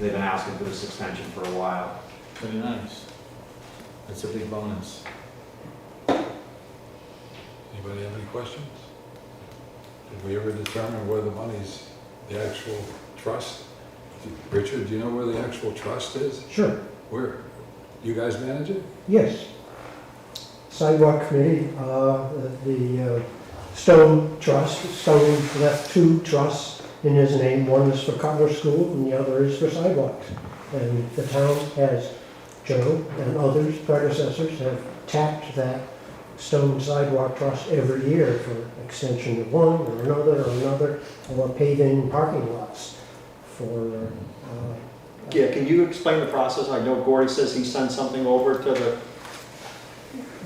They've been asking for this extension for a while. Very nice. That's a big bonus. Anybody have any questions? Did we ever determine where the money's, the actual trust? Richard, do you know where the actual trust is? Sure, Where? You guys manage it? yes. Sidewalk committee, uh, the uh, Stone Trust, Stone left two trusts in his name. One is for Cutler School and the other is for sidewalks. And the town has, Joe and others predecessors have tapped that Stone Sidewalk Trust every year for extension of one or another or another, or paving parking lots for, uh, Yeah, can you explain the process? I know Gordy says he sends something over to the,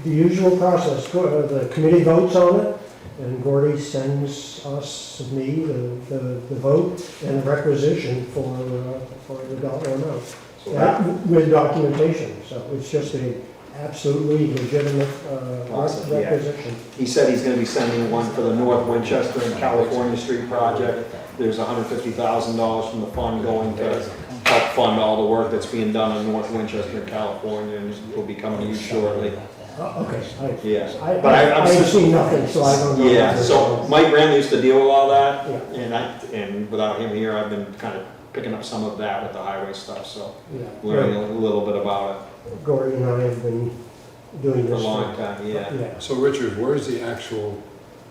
The usual process, Go- uh, the committee votes on it, and Gordy sends us, me, the, the the vote and the requisition for, uh, for the dollar amount. So That uh, With documentation, so it's just a absolutely legitimate uh, Process, yeah. requisition. he said he's gonna be sending one for the North Winchester and California Street project. There's hundred fifty thousand dollars from the fund going to help fund all the work that's being done in North Winchester and California, and will be coming to you shortly. Oh, Okay, I- Yeah. I, But I- I- I'm I've just- seen nothing, so I don't know. what Yeah, they're so doing. Mike Rand used to deal with all that, Yeah, and I, and without him here, I've been kind of picking up some of that with the highway stuff, so learning yeah. a little bit about it Gordy and I have been doing for a this. long for- time, yeah. So Richard, where's the actual,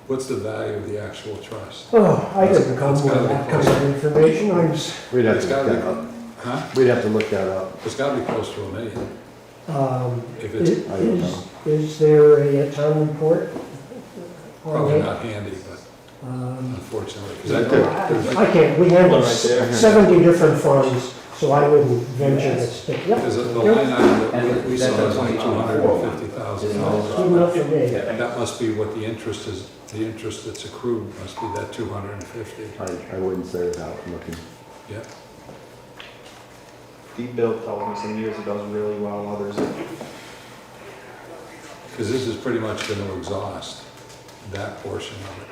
what's the value of the actual trust? Oh, I didn't come It's with gotta be that kind of information, I'm s- We'd have It's to got look to that up. be, huh? We'd have to look that up. It's got to be close to a million. Um, If is, it's I don't know. is there a town report? probably not handy, but Um, unfortunately. 'cause I don't- I I can't, we handle One right there. seventy different funds, so I wouldn't venture to speak. Yep, Because the line item that And we- we saw that's is a like 22,400. $250,000. good enough for me. That must be what the interest is, the interest that's accrued must be that 250. I, I wouldn't say without looking. Yeah, Deep Bill told me some years it does really well, others it because this is pretty much going to exhaust that portion of it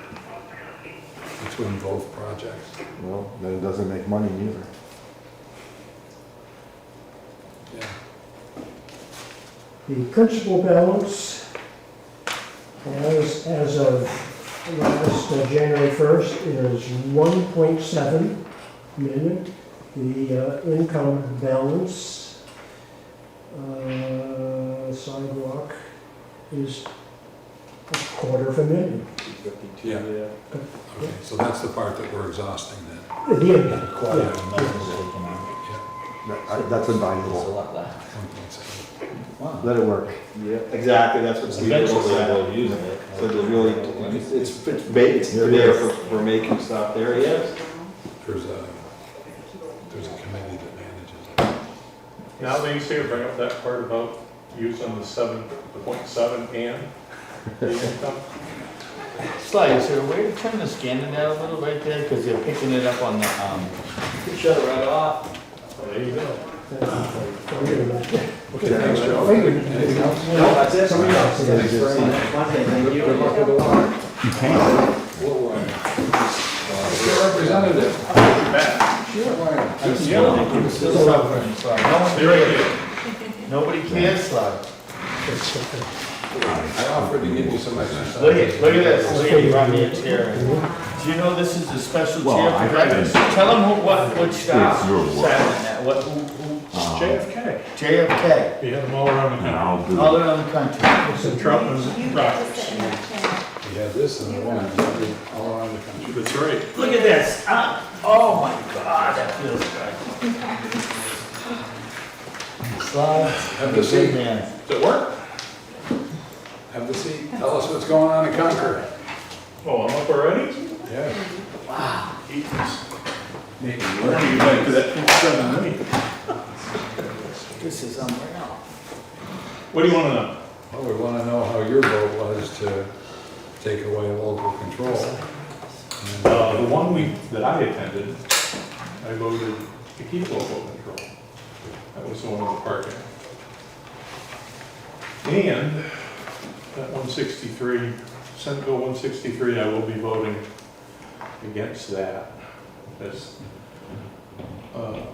between both projects. Well, then it doesn't make money either. Yeah, The principal balance as, as of last uh, January first is one point seven million. The uh, income balance, uh, sidewalk is a quarter of a million. fifty-two, Yeah. yeah. okay, so that's the part that we're exhausting then. The income, Yeah, yeah. yeah, That- I- That's invaluable. one point seven. Let it work. Yeah. Exactly, that's what Steve was saying. using it. So there's really, it's, it's, it's ba- it's There it there is. for, for making stuff, there he is. There's a, there's a committee that manages Now that you say it, bring up that part about using the seven, the point seven and the income. Sly, is there a way to turn the scanning down a little right there, because you're picking it up on the, um. Shut it right off. There you go. it. Okay, thanks, Joe. Anything else? No, that's it. Somebody else. Thanks very much. Good luck with the warrant. We'll, uh, Your representative. I'm still, still suffering, Sly. No one- Nobody cares, Sly. I offered to give you some exercise. Look at, look at this, look at you brought me a chair. Do you know this is a special chair for veterans? Tell them who, what, which staff sat in that, what, who, who? Uh-huh. JFK. JFK, You had them all around the town. all around the country. Trump and Rogers. You have this and the one in every- all around the country. That's right. Look at this, ah, oh my God, that feels good. Sly, Have you're the a good seat, man. Does it work? have the seat. Tell us what's going on in Concord. Oh, I'm up already? Yeah. What are you doing to that point seven million? This is unreal. What do you wanna know? Well, we want to know how your vote was to take away local control. Uh, the one week that I attended, I voted to keep local control. That was the one with the parking. And that one sixty-three, Senate Bill one sixty-three, I will be voting against that. That's, uh,